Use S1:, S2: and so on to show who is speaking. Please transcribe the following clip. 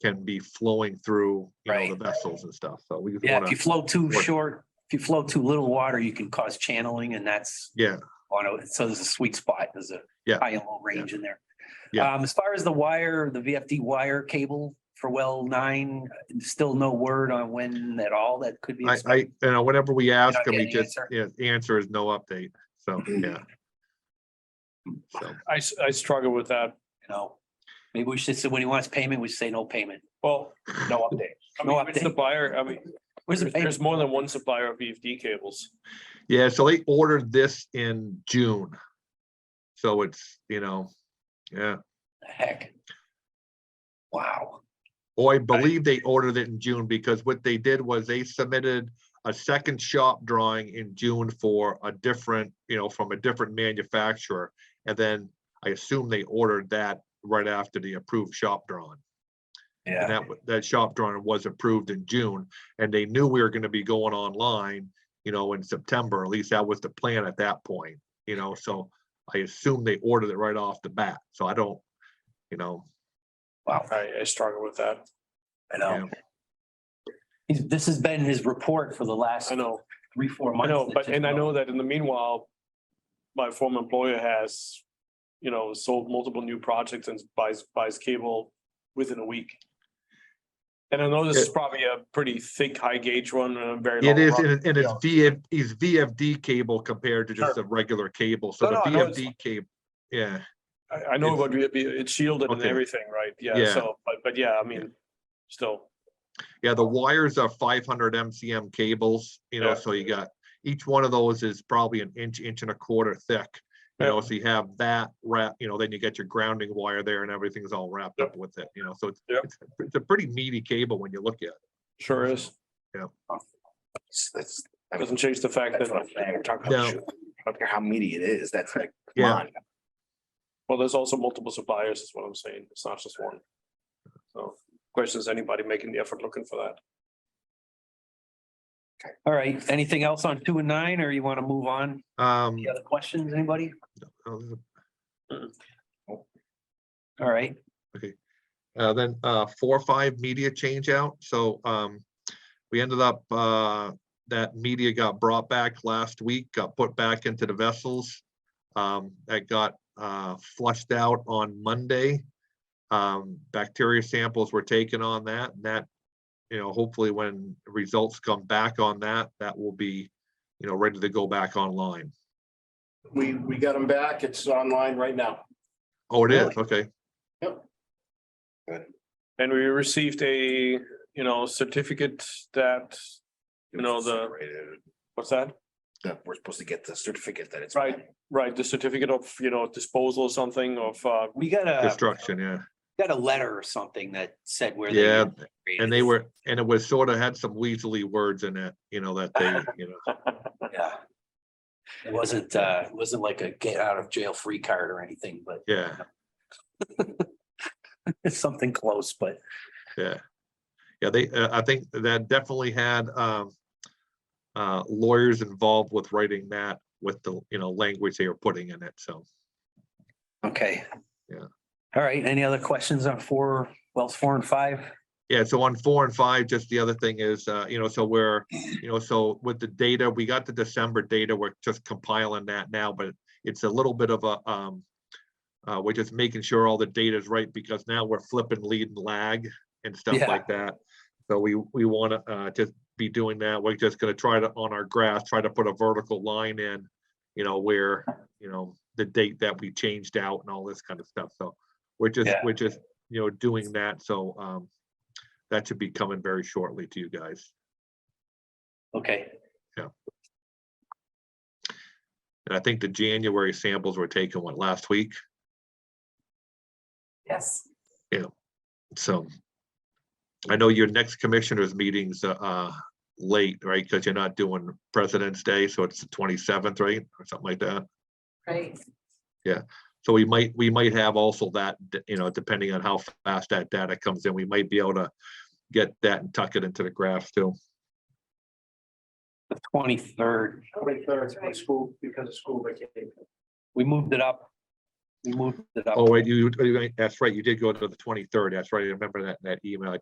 S1: can be flowing through, you know,
S2: Right.
S1: the vessels and stuff. So we just
S2: Yeah, if
S1: want
S2: you
S1: to,
S2: flow too
S1: What-
S2: short, if you flow too little water, you can cause channeling and that's
S1: yeah,
S2: on a, so there's a sweet spot, there's a
S1: Yeah.
S2: high and low range in there.
S1: Yeah.
S2: Um, as far as the wire, the VFD wire cable for well nine, still no word on when at all that could be.
S1: I, I, you know, whenever we ask
S2: not
S1: them, we
S2: getting an
S1: just, yeah, the answer is no update. So, yeah. So,
S3: I, s- I struggle with that.
S2: You know, maybe we should say, when he wants payment, we say no payment,
S3: Well,
S2: no update.
S3: I
S2: No
S3: mean, which
S2: update.
S3: supplier, I mean,
S2: Where's the
S3: there's-
S2: payment?
S3: there's more than one supplier of VFD cables.
S1: yeah, so they ordered this in June. So it's, you know, yeah,
S2: Heck. Wow.
S1: or I believe they ordered it in June because what they did was they submitted a second shop drawing in June for a different, you know, from a different manufacturer. And then I assume they ordered that right after the approved shop drawing. And
S2: Yeah.
S1: that, wa- that shop drawing was approved in June, and they knew we were gonna be going online, you know, in September, at least that was the plan at that point, you know, so I assume they ordered it right off the bat, so I don't, you know,
S2: Wow.
S3: I, I struggle with that.
S2: I know. He's- This has been his report for the last
S3: I know,
S2: three, four
S3: I
S2: months.
S3: know,
S2: that
S3: but,
S2: just
S3: and I
S2: go-
S3: know that in the meanwhile, my former employer has, you know, sold multiple new projects and buys, buys cable within a week. And I know this is probably a pretty thick, high gauge one and a very.
S1: it
S3: long
S1: is,
S3: run.
S1: and it- and it's VF, is VFD cable compared to just a
S3: Sure.
S1: regular cable, so
S3: No,
S1: the
S3: no, I know it's-
S1: VFD cable, yeah,
S3: I, I know
S1: it's-
S3: about VFD, it's shielded and
S1: Okay.
S3: everything, right? Yeah,
S1: Yeah.
S3: so, but, but yeah, I mean, still.
S1: yeah, the wires are five hundred MCM cables, you know,
S3: Yeah.
S1: so you got, each one of those is probably an inch, inch and a quarter thick. You know,
S3: Yeah.
S1: so you have that wrap, you know, then you get your grounding wire there and everything's all wrapped
S3: Yep.
S1: up with it, you know, so it's,
S3: Yep.
S1: it's, it's a pretty meaty cable when you look at it.
S3: Sure is.
S4: It's- That's, I mean,
S3: Doesn't change the fact
S4: that's
S3: that,
S4: what I'm saying. We're talking
S1: No.
S4: about, shoot, I don't care how meaty it is, that's like, come
S1: Yeah.
S4: on.
S3: well, there's also multiple suppliers is what I'm saying. It's not just one. So question is anybody making the effort looking for that?
S2: All right, anything else on two and nine, or you want to move on?
S1: Um,
S2: Any other questions, anybody?
S1: uh,
S2: All right,
S1: Uh, then, uh, four, five media change out, so, um, we ended up, uh, that media got brought back last week, got put back into the vessels. Um, that got, uh, flushed out on Monday. Um, bacteria samples were taken on that, and that, you know, hopefully when results come back on that, that will be, you know, ready to go back online.
S5: We, we got them back. It's online right now.
S1: Oh, it is,
S2: Really?
S1: okay,
S3: And we received a, you know, certificate that, You know, the-
S4: Separated,
S3: what's that?
S4: That we're supposed to get the certificate that it's.
S3: Right. Right, the certificate of, you know, disposal or something of, uh,
S2: we got a,
S1: destruction, yeah.
S2: got a letter or something that said where. they
S1: Yeah,
S2: operated.
S1: And they were, and it was sort of had some weaselly words in it, you know, that they, you know,
S2: Yeah. It wasn't, uh, it wasn't like a get out of jail free card or anything, but
S1: yeah,
S2: it's something close, but
S1: yeah. Yeah, they, uh, I think that definitely had, um, uh, lawyers involved with writing that with the, you know, language they were putting in it, so.
S2: okay.
S1: Yeah.
S2: All right, any other questions on four, Wells four and five?
S1: Yeah, so on four and five, just the other thing is, uh, you know, so we're, you know, so with the data, we got the December data, we're just compiling that now, but it's a little bit of a, um, uh, we're just making sure all the data is right because now we're flipping lead and lag and stuff
S2: Yeah.
S1: like that. So we, we want to, uh, just be doing that. We're just gonna try to, on our graph, try to put a vertical line in, you know, where, you know, the date that we changed out and all this kind of stuff. So we're just,
S2: Yeah.
S1: we're just, you know, doing that. So, um, that should be coming very shortly to you guys.
S2: Okay,
S1: And I think the January samples were taken what last week,
S6: Yes,
S1: so. I know your next commissioners meetings uh, uh late, right? Because you're not doing President's Day, so it's the twenty-seventh, right? Or something like that.
S6: right.
S1: So we might, we might have also that, d- you know, depending on how fast that data comes in, we might be able to get that and tuck it into the graph too.
S2: the twenty-third,
S5: Twenty-third, school, because of school vacation.
S2: we moved it up We moved it up.
S1: Oh, wait, you, you- that's right, you did go to the twenty-third, that's right, I remember that, that email, I